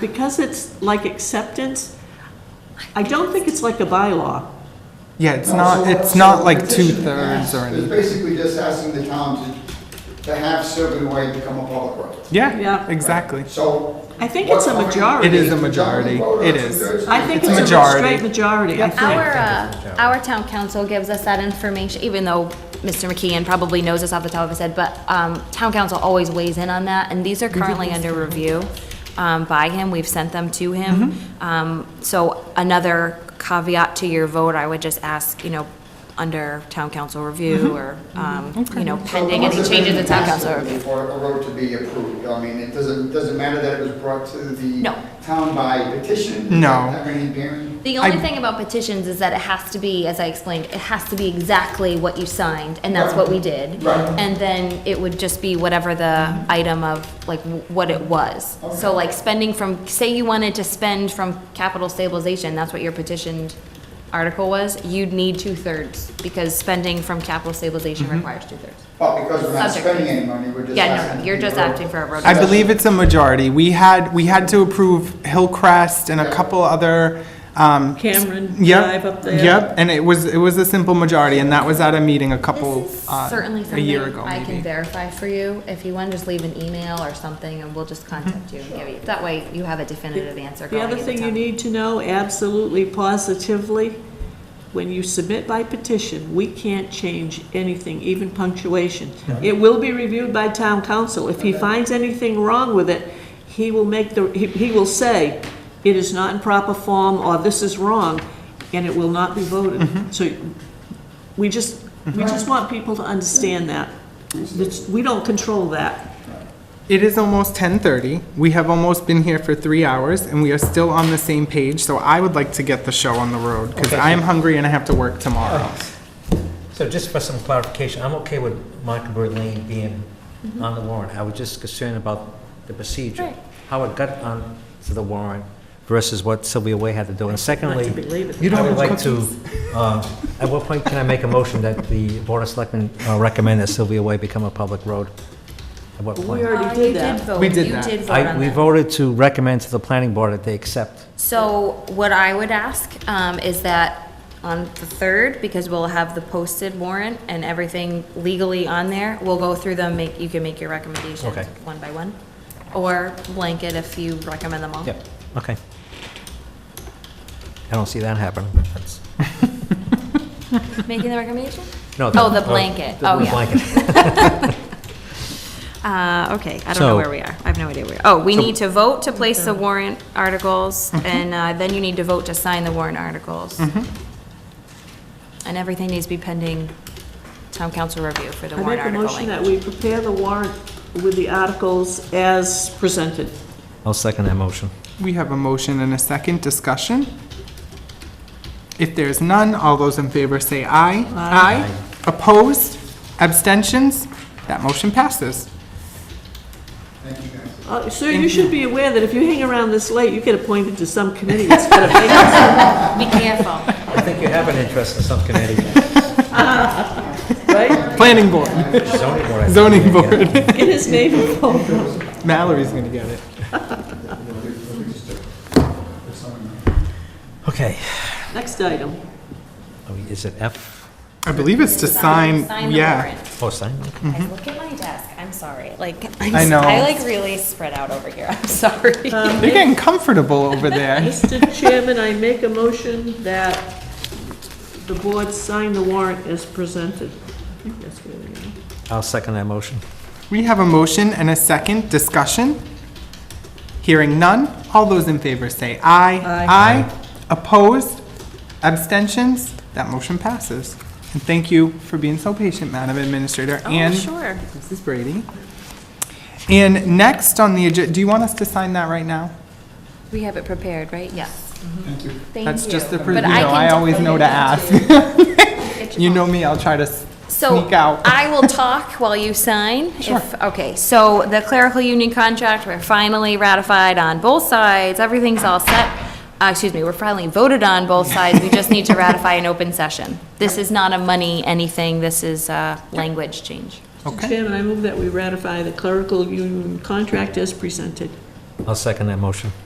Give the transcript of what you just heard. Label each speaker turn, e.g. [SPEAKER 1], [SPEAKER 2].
[SPEAKER 1] because it's like acceptance, I don't think it's like a bylaw.
[SPEAKER 2] Yeah, it's
[SPEAKER 3] No,
[SPEAKER 2] not,
[SPEAKER 3] so-
[SPEAKER 2] it's
[SPEAKER 3] so
[SPEAKER 2] not
[SPEAKER 3] the
[SPEAKER 2] like
[SPEAKER 3] petition
[SPEAKER 2] two-thirds or
[SPEAKER 3] passed. It's
[SPEAKER 2] anything.
[SPEAKER 3] basically just asking the town to, to have Sylvan Way become a public road.
[SPEAKER 2] Yeah,
[SPEAKER 1] Yeah.
[SPEAKER 2] exactly.
[SPEAKER 3] So.
[SPEAKER 1] I think it's a
[SPEAKER 3] what-
[SPEAKER 1] majority.
[SPEAKER 2] It is a majority.
[SPEAKER 3] Vote on
[SPEAKER 2] It is.
[SPEAKER 3] two-thirds?
[SPEAKER 1] I think
[SPEAKER 2] It's a
[SPEAKER 1] it's a
[SPEAKER 2] majority.
[SPEAKER 1] straight majority, I
[SPEAKER 4] Our,
[SPEAKER 1] think.
[SPEAKER 4] uh, our town council gives us that information, even though Mr. McKeon probably knows this off the top of his head, but, um, town council always weighs in on that, and these are currently under review, um, by him, we've sent them to him. Um, so another caveat to your vote, I would just ask, you know, under town council review, or, um, you know,
[SPEAKER 3] So
[SPEAKER 4] pending
[SPEAKER 3] once
[SPEAKER 4] any
[SPEAKER 3] it's
[SPEAKER 4] changes
[SPEAKER 3] been
[SPEAKER 4] in town
[SPEAKER 3] passed,
[SPEAKER 4] council
[SPEAKER 3] it'll be
[SPEAKER 4] review.
[SPEAKER 3] For a road to be approved, I mean, it doesn't, doesn't matter that it was brought to the
[SPEAKER 4] No.
[SPEAKER 3] town by petition.
[SPEAKER 2] No.
[SPEAKER 3] Does that have any bearing?
[SPEAKER 4] The only
[SPEAKER 2] I-
[SPEAKER 4] thing about petitions is that it has to be, as I explained, it has to be exactly what you signed, and that's what we did.
[SPEAKER 3] Right.
[SPEAKER 4] And then it would just be whatever the item of, like, w- what it was. So like spending from, say you wanted to spend from capital stabilization, that's what your petitioned article was, you'd need two-thirds, because spending from capital stabilization requires two-thirds.
[SPEAKER 3] Well, because we're not
[SPEAKER 4] Subject.
[SPEAKER 3] spending any money, we're just
[SPEAKER 4] Yeah, no,
[SPEAKER 3] asking.
[SPEAKER 4] you're
[SPEAKER 3] to
[SPEAKER 4] just
[SPEAKER 3] be approved.
[SPEAKER 4] acting for a road
[SPEAKER 2] I believe it's a majority. We had, we had to approve Hillcrest and a
[SPEAKER 3] Yeah.
[SPEAKER 2] couple other, um,
[SPEAKER 1] Cameron
[SPEAKER 2] yep,
[SPEAKER 1] Drive up there.
[SPEAKER 2] yep, and it was, it was a simple majority, and that was at a meeting a couple,
[SPEAKER 4] This is
[SPEAKER 2] uh,
[SPEAKER 4] certainly
[SPEAKER 2] a year
[SPEAKER 4] something
[SPEAKER 2] ago,
[SPEAKER 4] I can
[SPEAKER 2] maybe.
[SPEAKER 4] verify for you. If you want, just leave an email or something, and we'll just contact you and give you, that way you have a definitive answer
[SPEAKER 1] The
[SPEAKER 4] going
[SPEAKER 1] other
[SPEAKER 4] into
[SPEAKER 1] thing you
[SPEAKER 4] town.
[SPEAKER 1] need to know, absolutely positively, when you submit by petition, we can't change anything, even punctuation. It will be reviewed by town council. If he finds anything wrong with it, he will make the, he, he will say, it is not in proper form, or this is wrong, and it will not be voted. So we just, we just want people to understand that. It's- We don't control that.
[SPEAKER 2] It is almost 10:30. We have almost been here for three hours, and we are still on the same page, so I would like to get the show on the road, because
[SPEAKER 5] Okay.
[SPEAKER 2] I am hungry and I have to work
[SPEAKER 1] Oh.
[SPEAKER 2] tomorrow.
[SPEAKER 5] So just for some clarification, I'm okay with Mockingbird Lane being on the warrant. I was just concerned about the procedure,
[SPEAKER 4] Right.
[SPEAKER 5] how it got on to the warrant versus what Sylvia Way had to do. And secondly,
[SPEAKER 1] believe it.
[SPEAKER 2] You don't
[SPEAKER 5] I would
[SPEAKER 2] have
[SPEAKER 5] like to, uh, at what point can I make a motion that the Board of Selectmen uh, recommend that Sylvia Way become a public road? At what
[SPEAKER 1] We
[SPEAKER 5] point?
[SPEAKER 1] already did that.
[SPEAKER 2] We did that.
[SPEAKER 5] I- We voted to recommend to the planning board that they accept.
[SPEAKER 4] So what I would ask um, is that on the 3rd, because we'll have the posted warrant and everything legally on there, we'll go through them, make, you can make your recommendations
[SPEAKER 5] Okay.
[SPEAKER 4] one by one, or blanket if you recommend them all.
[SPEAKER 5] Yep, okay. I don't see that happening. That's-
[SPEAKER 4] Making the recommendation?
[SPEAKER 5] No,
[SPEAKER 4] Oh, the blanket.
[SPEAKER 5] the
[SPEAKER 4] Oh, yeah.
[SPEAKER 5] blanket.
[SPEAKER 4] Uh, okay, I don't
[SPEAKER 5] So-
[SPEAKER 4] know where we are. I have no idea where. Oh, we need to vote to place the warrant articles,
[SPEAKER 2] Mm-hmm.
[SPEAKER 4] and uh, then you need to vote to sign the warrant articles.
[SPEAKER 2] Mm-hmm.
[SPEAKER 4] And everything needs to be pending town council review for the
[SPEAKER 1] I
[SPEAKER 4] warrant
[SPEAKER 1] make a
[SPEAKER 4] article
[SPEAKER 1] motion that
[SPEAKER 4] language.
[SPEAKER 1] we prepare the warrant with the articles as presented.
[SPEAKER 5] I'll second that motion.
[SPEAKER 2] We have a motion and a second discussion. If there's none, all those in favor say aye. Aye. Opposed? Abstentions? That motion passes.
[SPEAKER 3] Thank you, guys.
[SPEAKER 1] Uh, Sir, you should be aware that if you hang around this late, you get appointed to some committee that's gonna make us-
[SPEAKER 4] Be careful.
[SPEAKER 5] I think you have an interest in some committee.
[SPEAKER 1] right?
[SPEAKER 2] Planning Board,
[SPEAKER 5] Zoning board. I think
[SPEAKER 2] Zoning
[SPEAKER 5] you're gonna get.
[SPEAKER 2] Board.
[SPEAKER 1] Get his name involved.
[SPEAKER 2] Mallory's gonna get it.
[SPEAKER 5] Okay.
[SPEAKER 1] Next item.
[SPEAKER 5] Oh, Is it F?
[SPEAKER 2] I believe it's to sign,
[SPEAKER 4] the
[SPEAKER 2] yeah.
[SPEAKER 4] warrant.
[SPEAKER 5] Oh, sign?
[SPEAKER 4] I look at my desk. I'm sorry. Like, I'm
[SPEAKER 2] Mm-hmm. I
[SPEAKER 4] s-
[SPEAKER 2] know.
[SPEAKER 4] I like really spread out over here. I'm sorry.
[SPEAKER 2] They're getting comfortable over there.
[SPEAKER 1] Mr. Chairman, I make a motion that the board sign the warrant as presented. I think that's where we are.
[SPEAKER 5] I'll second that motion.
[SPEAKER 2] We have a motion and a second discussion. Hearing none, all those in favor say aye.
[SPEAKER 1] Aye.
[SPEAKER 2] Aye. Opposed? Abstentions? That motion passes. And thank you for being so patient, Madam Administrator, and
[SPEAKER 4] Oh, sure.
[SPEAKER 2] Mrs. Brady. And next on the agenda, do you want us to sign that right now?
[SPEAKER 4] We have it prepared, right? Yes. Mm-hmm.
[SPEAKER 3] Thank you.
[SPEAKER 4] Thank you.
[SPEAKER 2] That's just the,
[SPEAKER 4] But
[SPEAKER 2] pr- you know,
[SPEAKER 4] I can
[SPEAKER 2] I always know
[SPEAKER 4] definitely
[SPEAKER 2] to ask.
[SPEAKER 4] get
[SPEAKER 2] You know me, I'll try to s-
[SPEAKER 4] So
[SPEAKER 2] sneak out.
[SPEAKER 4] I will talk while you sign. Sure. Okay, so the clerical union contract, we're finally ratified on both sides, everything's all set. Uh, Excuse me, we're finally voted on both sides, we just need to ratify an open session. This is not a money anything, this is a language change.
[SPEAKER 1] Mr. Chairman, I move that we ratify the clerical union contract as presented.
[SPEAKER 5] I'll second that motion.